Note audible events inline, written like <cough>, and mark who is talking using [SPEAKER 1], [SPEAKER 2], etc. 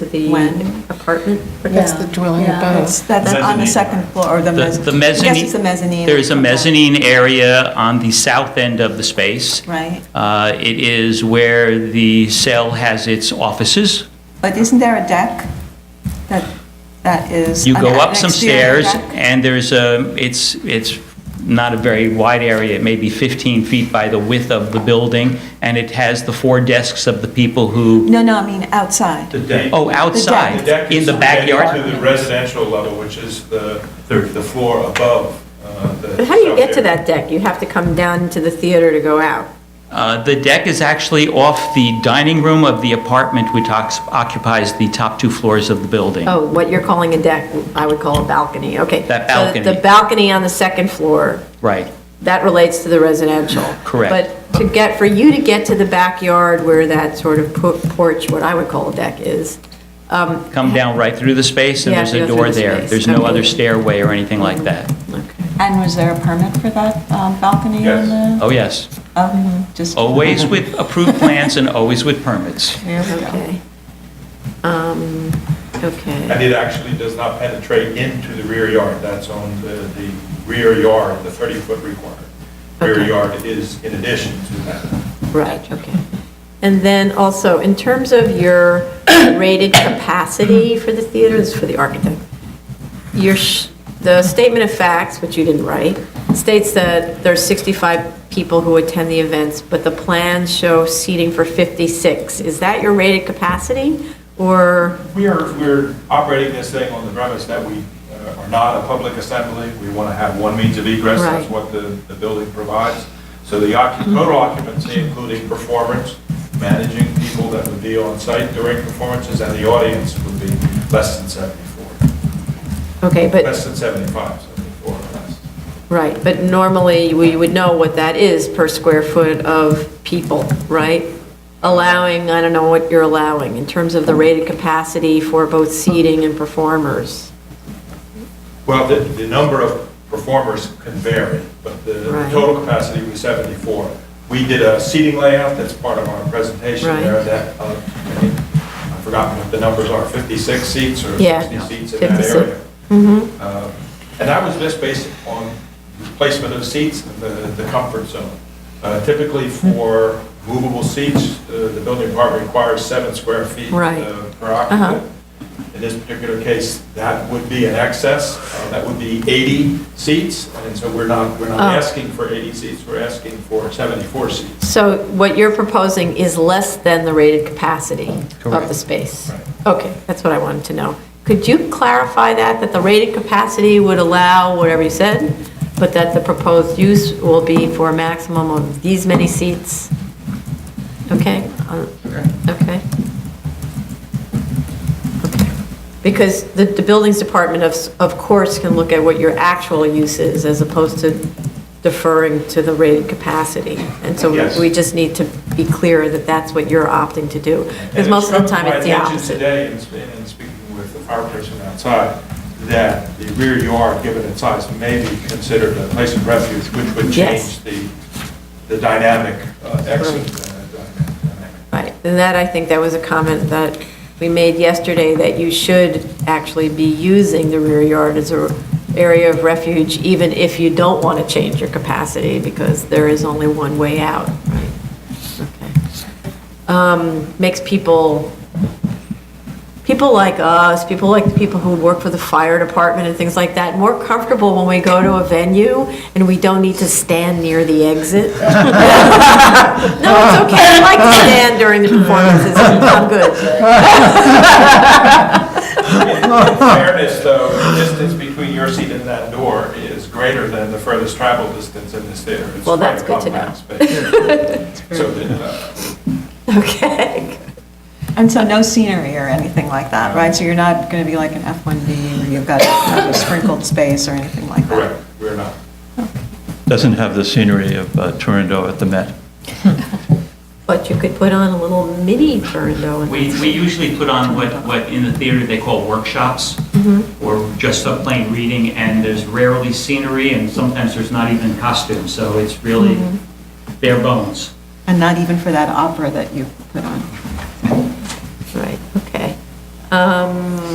[SPEAKER 1] the
[SPEAKER 2] When?
[SPEAKER 1] apartment?
[SPEAKER 3] That's the dwelling
[SPEAKER 2] Yeah,
[SPEAKER 3] above.
[SPEAKER 2] it's- That's on the
[SPEAKER 4] Mezzanine.
[SPEAKER 2] second floor, or the
[SPEAKER 4] The-
[SPEAKER 2] mezzanine.
[SPEAKER 4] The
[SPEAKER 2] I guess it's the
[SPEAKER 4] mezzanine,
[SPEAKER 2] mezzanine.
[SPEAKER 4] there is a mezzanine area on the south end of the space.
[SPEAKER 2] Right,
[SPEAKER 4] Uh, It is where the cell has its offices.
[SPEAKER 2] but isn't there a deck that, that is?
[SPEAKER 4] You
[SPEAKER 2] an-
[SPEAKER 4] go
[SPEAKER 2] an
[SPEAKER 4] up some
[SPEAKER 2] exterior
[SPEAKER 4] stairs,
[SPEAKER 2] deck?
[SPEAKER 4] and there's a, it's, it's not a very wide area, it may be 15 feet by the width of the building, and it has the four desks of the people who,
[SPEAKER 2] No, no, I mean outside.
[SPEAKER 5] The deck.
[SPEAKER 4] oh,
[SPEAKER 5] The
[SPEAKER 4] outside,
[SPEAKER 5] deck
[SPEAKER 4] in
[SPEAKER 5] is
[SPEAKER 4] the
[SPEAKER 5] connected
[SPEAKER 4] backyard.
[SPEAKER 5] To the residential level, which is the, the floor above uh, the.
[SPEAKER 1] But how do you
[SPEAKER 5] south
[SPEAKER 1] get to
[SPEAKER 5] area.
[SPEAKER 1] that deck? You have to come down to the theater to go out.
[SPEAKER 4] Uh, The deck is actually off the dining room of the apartment which ox- occupies the top two floors of the building.
[SPEAKER 1] Oh, what you're calling a deck, I would call a balcony, okay.
[SPEAKER 4] That
[SPEAKER 1] So The
[SPEAKER 4] balcony.
[SPEAKER 1] balcony on the second floor,
[SPEAKER 4] Right.
[SPEAKER 1] that relates to the residential.
[SPEAKER 4] Correct.
[SPEAKER 1] But to get, for you to get to the backyard where that sort of por- porch, what I would call a deck is, um,
[SPEAKER 4] Come down right through the space, and
[SPEAKER 1] Yeah,
[SPEAKER 4] there's
[SPEAKER 1] go
[SPEAKER 4] a
[SPEAKER 1] through
[SPEAKER 4] door
[SPEAKER 1] the
[SPEAKER 4] there.
[SPEAKER 1] space.
[SPEAKER 4] There's no
[SPEAKER 1] Okay.
[SPEAKER 4] other stairway or anything like that.
[SPEAKER 2] And was there a permit for that um, balcony on
[SPEAKER 5] Yes.
[SPEAKER 2] the?
[SPEAKER 4] Oh, yes.
[SPEAKER 2] um, Just
[SPEAKER 4] Always with approved plans and always with permits.
[SPEAKER 2] There we go.
[SPEAKER 1] okay. Um, okay.
[SPEAKER 5] And it actually does not penetrate into the rear yard, that's on the, the rear yard, the 30-foot requirement. Rear
[SPEAKER 1] Okay.
[SPEAKER 5] yard is in addition to that.
[SPEAKER 1] Right, okay. And then also, in terms of your rated capacity for the theater, this is for the architect, your, sh- the statement of facts, which you didn't write, states that there are 65 people who attend the events, but the plans show seating for 56. Is that your rated capacity, or,
[SPEAKER 5] We are, we're operating this thing on the premise that we uh, are not a public assembly. We want to have one means of egress, that's
[SPEAKER 1] Right.
[SPEAKER 5] what the, the building provides. So the occu- total occupancy, including performance, managing people that would be on site during performances, and the audience would be less than 74,
[SPEAKER 1] okay, but,
[SPEAKER 5] less than 75, 74 or less.
[SPEAKER 1] right, but normally, we would know what that is per square foot of people, right? Allowing, I don't know what you're allowing, in terms of the rated capacity for both seating and performers.
[SPEAKER 5] Well, the, the number of performers can vary, but the
[SPEAKER 1] Right.
[SPEAKER 5] total capacity was 74. We did a seating layout, that's part of our presentation
[SPEAKER 1] Right.
[SPEAKER 5] there, that, uh, I think- I've forgotten what the numbers are, 56 seats or
[SPEAKER 1] Yeah, Mm-hmm.
[SPEAKER 5] 60 seats in that
[SPEAKER 1] 56.
[SPEAKER 5] area. Uh, And that was just based on the placement of seats and the, the comfort zone. Uh, Typically for movable seats, uh, the building department requires seven square feet
[SPEAKER 1] Right. Uh-huh.
[SPEAKER 5] uh, per occupant. In this particular case, that would be an excess, uh, that would be 80 seats, and so we're not, we're not
[SPEAKER 1] Oh.
[SPEAKER 5] asking for 80 seats, we're asking for 74 seats.
[SPEAKER 1] So what you're proposing is less than the rated capacity of the
[SPEAKER 4] Correct.
[SPEAKER 1] space?
[SPEAKER 5] Right.
[SPEAKER 1] Okay, that's what I wanted to know. Could you clarify that, that the rated capacity would allow whatever you said, but that the proposed use will be for a maximum of these many seats? Okay? uh, Okay. Okay. Because the, the buildings department of, s- of course can look at what your actual use is as opposed to deferring to the rated capacity. And so
[SPEAKER 5] Yes.
[SPEAKER 1] we just need to be clear that that's what you're opting to do.
[SPEAKER 5] And
[SPEAKER 1] Because most of the time it's the
[SPEAKER 5] come
[SPEAKER 1] opposite.
[SPEAKER 5] to my attention today, in sp- in speaking with the fire person outside, that the rear yard, given its size, may be considered a place of refuge, which would
[SPEAKER 1] Yes.
[SPEAKER 5] change the, the dynamic uh, exit.
[SPEAKER 1] Right.
[SPEAKER 5] uh, dynamic.
[SPEAKER 1] Right, and that, I think that was a comment that we made yesterday, that you should actually be using the rear yard as a area of refuge, even if you don't want to change your capacity, because there is only one way out, right? Okay. Um, Makes people, people like us, people like the people who work for the fire department and things like that, more comfortable when we go to a venue and we don't need to stand near the exit. <laughs> No, it's okay, I like to stand during the performances, I'm good. <laughs>
[SPEAKER 5] In fairness, though, the distance between your seat and that door is greater than the furthest travel distance in this theater. It's
[SPEAKER 1] Well,
[SPEAKER 5] quite
[SPEAKER 1] that's good to
[SPEAKER 5] compact
[SPEAKER 1] know.
[SPEAKER 5] space.
[SPEAKER 1] <laughs>
[SPEAKER 5] So, the, uh,
[SPEAKER 1] Okay.
[SPEAKER 2] And so no scenery or anything like that, right? So you're not going to be like an F1B where you've got a sprinkled space or anything like that?
[SPEAKER 5] correct, we're not.
[SPEAKER 6] Doesn't have the scenery of uh, Turandot at the Met.
[SPEAKER 1] But you could put on a little mini Turandot.
[SPEAKER 4] We, we usually put on what, what in the theater they call workshops,
[SPEAKER 1] Mm-hmm.
[SPEAKER 4] or just a plain reading, and there's rarely scenery, and sometimes there's not even costumes, so it's really
[SPEAKER 1] Mm-hmm.
[SPEAKER 4] bare bones.
[SPEAKER 2] And not even for that opera that you put on?
[SPEAKER 1] Right, okay. Um,